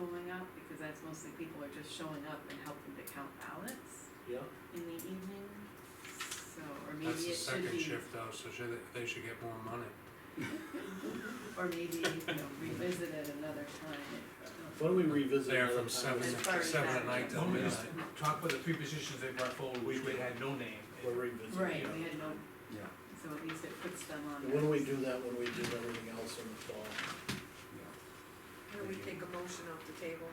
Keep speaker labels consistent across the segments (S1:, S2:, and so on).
S1: count, because that's mostly people are just showing up and helping to count ballots
S2: yeah,
S1: in the evening, so, or maybe
S3: That's the
S1: it should
S3: second
S1: be,
S3: shift though, so should, they should get more money.
S1: or maybe, you know, revisit it another time. if, um,
S2: why don't we revisit
S3: They're
S2: another
S3: from
S2: time?
S3: seven,
S1: As far as
S3: seven
S1: that
S3: at night till
S1: goes.
S3: midnight.
S4: Talk with the three positions they brought forward, which we had no name.
S2: We'll revisit.
S1: Right,
S4: yeah.
S1: we had no,
S5: Yeah,
S1: so at least it puts them on.
S2: And When we
S1: notice.
S2: do that, when we do everything else in the fall,
S5: yeah.
S6: How do we take a motion off the table?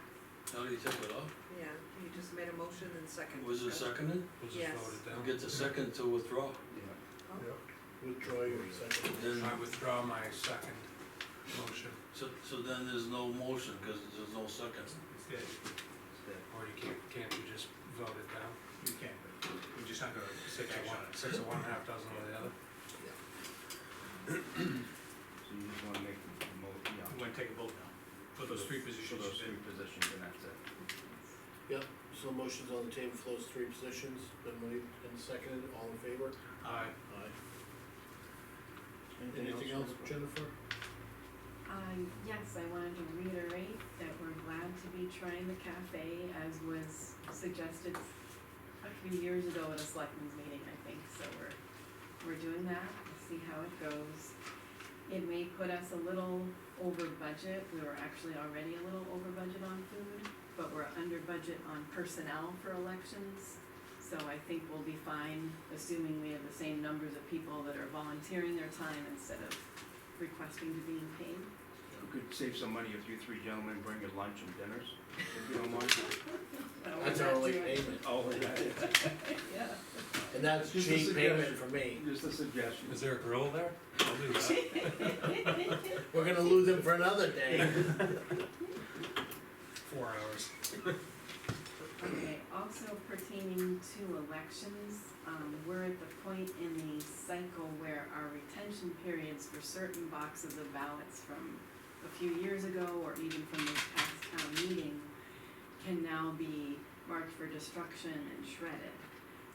S7: How do you take it off?
S6: Yeah, you just made a motion and second.
S7: Was it seconded?
S3: We'll just
S6: Yes.
S3: vote it
S7: I'll
S3: down.
S7: get the second to withdraw.
S5: Yeah,
S2: withdraw your second.
S7: Then,
S3: I withdraw my second motion,
S7: so, so then there's no motion, cause there's no second.
S4: It's dead.
S5: it's that.
S3: or you can't, can't you just vote it down?
S4: You can, but we're just not gonna
S3: Six of
S4: take action
S3: one,
S4: on it.
S3: six of one, half dozen of the other?
S5: So you just wanna make the mo,
S4: We're
S5: yeah.
S4: gonna take a vote now, for those three positions.
S5: For those three
S4: that-
S5: positions, and that's it.
S2: Yep, so motion's on the table for those three positions, then we, and seconded, all in favor?
S4: Aye.
S2: Aye. Anything else, Jennifer?
S1: Um, yes, I wanted to reiterate that we're glad to be trying the cafe as was suggested a few years ago at a selectmen's meeting, I think, so we're, we're doing that, We'll see how it goes. It may put us a little over budget, we were actually already a little over budget on food, but we're under budget on personnel for elections. So I think we'll be fine, assuming we have the same numbers of people that are volunteering their time instead of requesting to be paid.
S5: We could save some money if you three gentlemen bring your lunch and dinners, if you don't mind.
S1: Oh,
S2: That's our only payment,
S5: Oh, yeah.
S1: Yeah.
S2: and that's
S5: Just a
S2: cheap payment for me.
S5: Just a suggestion.
S3: Is there a grill there? I'll do that.
S2: We're gonna lose them for another day.
S3: Four hours.
S1: Okay, also pertaining to elections, um, we're at the point in the cycle where our retention periods for certain boxes of ballots from a few years ago or even from this past town meeting can now be marked for destruction and shredded.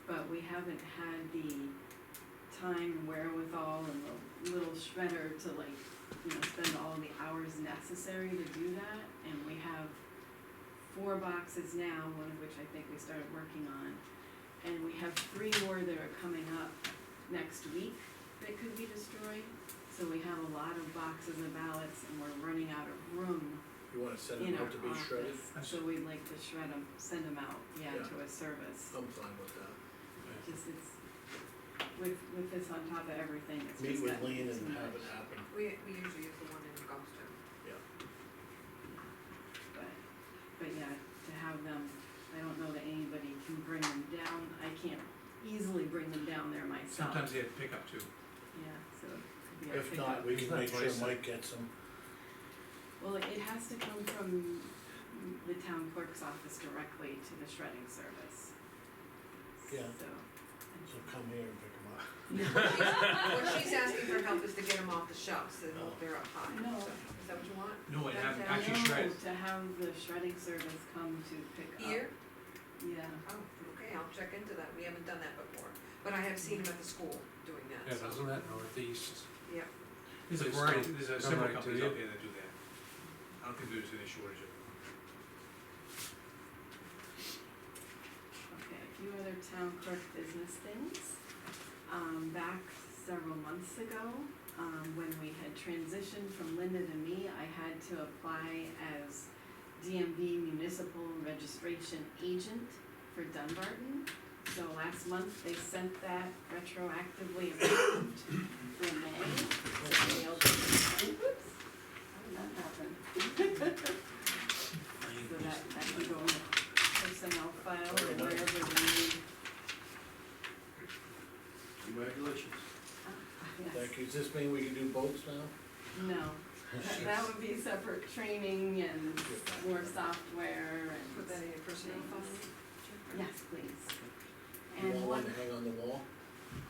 S1: But we haven't had the time wherewithal and the little shredder to like, you know, spend all the hours necessary to do that. And we have four boxes now, one of which I think we started working on. And we have three more that are coming up next week that could be destroyed. So we have a lot of boxes of ballots and we're running out of room
S2: You wanna send
S1: in
S2: them
S1: our
S2: out to be
S6: uh,
S2: shredded?
S1: office. So we'd like to shred them, send them out, yeah,
S2: Yeah.
S1: to a service.
S2: I'm fine with that.
S1: Just it's, with, with this on top of everything, it's
S2: Meet
S1: just
S2: with
S1: that.
S2: Lean
S1: it's
S2: and
S1: too
S2: have it
S1: much.
S2: happen.
S6: We, we usually use the one in Goffstown.
S1: But, but yeah, to have them, I don't know that anybody can bring them down, I can't easily bring them down there myself.
S4: Sometimes they had pickup too.
S1: Yeah, so it could be a
S2: If
S1: pickup.
S2: not, we
S3: It's
S2: can
S3: not
S2: make sure
S3: twice.
S2: Mike gets them.
S1: Well, it has to come from the town clerk's office directly to the shredding service.
S2: Yeah.
S1: So,
S2: So come here and pick them up.
S6: What she's asking for help is to get them off the shelves and
S2: Oh.
S6: they're up high,
S1: No.
S6: so, is that what you want?
S4: No, it
S6: That's
S4: happened,
S6: how-
S4: actually
S1: No,
S4: shredded.
S1: To have the shredding service come to pick up.
S6: Here?
S1: Yeah,
S6: Oh, okay, I'll check into that, we haven't done that before, but I have seen them at the school doing
S3: Yeah,
S6: that, so.
S3: doesn't that northeast?
S6: Yeah.
S4: There's
S3: Please
S4: a variety,
S3: don't
S4: there's a
S3: come
S4: several
S3: right to
S4: companies
S3: you.
S4: out there that do that. I don't think there's any shortage of them.
S1: okay, a few other town clerk business things. Um, back several months ago, um, when we had transitioned from Linda to me, I had to apply as DMV Municipal Registration Agent for Dunbarton. So last month, they sent that retroactively approved for May. They opened- Oops, how did that happen? So that, that can go in the personnel file and wherever we need.
S5: Congratulations.
S1: Yes.
S2: Thank you. Does this mean we can do boats now?
S1: No, that- that would be separate training and more software
S6: Put
S1: and,
S6: that in your personnel file.
S1: yes, please.
S2: You
S1: And what,
S2: want one to hang on the wall?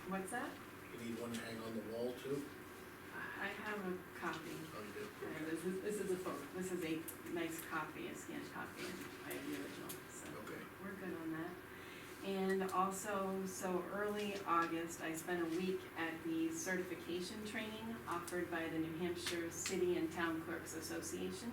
S1: what's that?
S2: You need one to hang on the wall too?
S1: I I have a copy,
S2: Oh, you do?
S1: Uh, this is, this is a photo, this is a nice copy, a scanned copy, and I have the original, so.
S2: Okay.
S1: we're good on that. And also, so early August, I spent a week at the certification training offered by the New Hampshire City and Town Clerks Association.